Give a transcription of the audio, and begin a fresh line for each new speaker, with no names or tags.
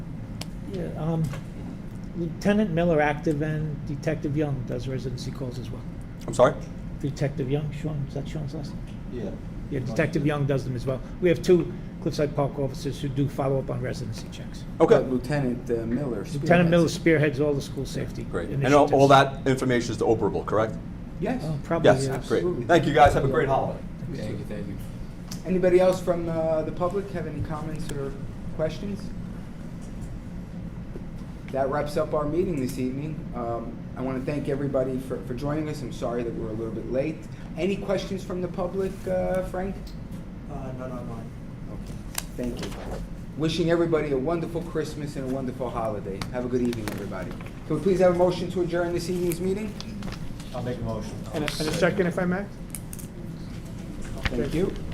Yeah, um, Lieutenant Miller active and Detective Young does residency calls as well.
I'm sorry?
Detective Young, Sean, is that Sean's last name?
Yeah.
Yeah, Detective Young does them as well. We have two Cliffside Park officers who do follow up on residency checks.
Okay,
But Lieutenant uh, Miller.
Lieutenant Miller
spearheads
spearheads all the school safety
great.
initiatives.
And all all that information is operable, correct?
it. Yes.
Oh, Probably,
Yes,
yes.
great.
absolutely.
Thank you, guys. Have a great holiday.
Thank you, thank you. Anybody else from uh, the public have any comments or questions? That wraps up our meeting this evening. Um, I want to thank everybody for, for joining us. I'm sorry that we're a little bit late. Any questions from the public, uh, Frank?
Uh, not online.
Thank you. Wishing everybody a wonderful Christmas and a wonderful holiday. Have a good evening, everybody. Can we please have a motion to adjourn this evening's meeting?
I'll make a motion.
And a and a second, if I may?
Thank you.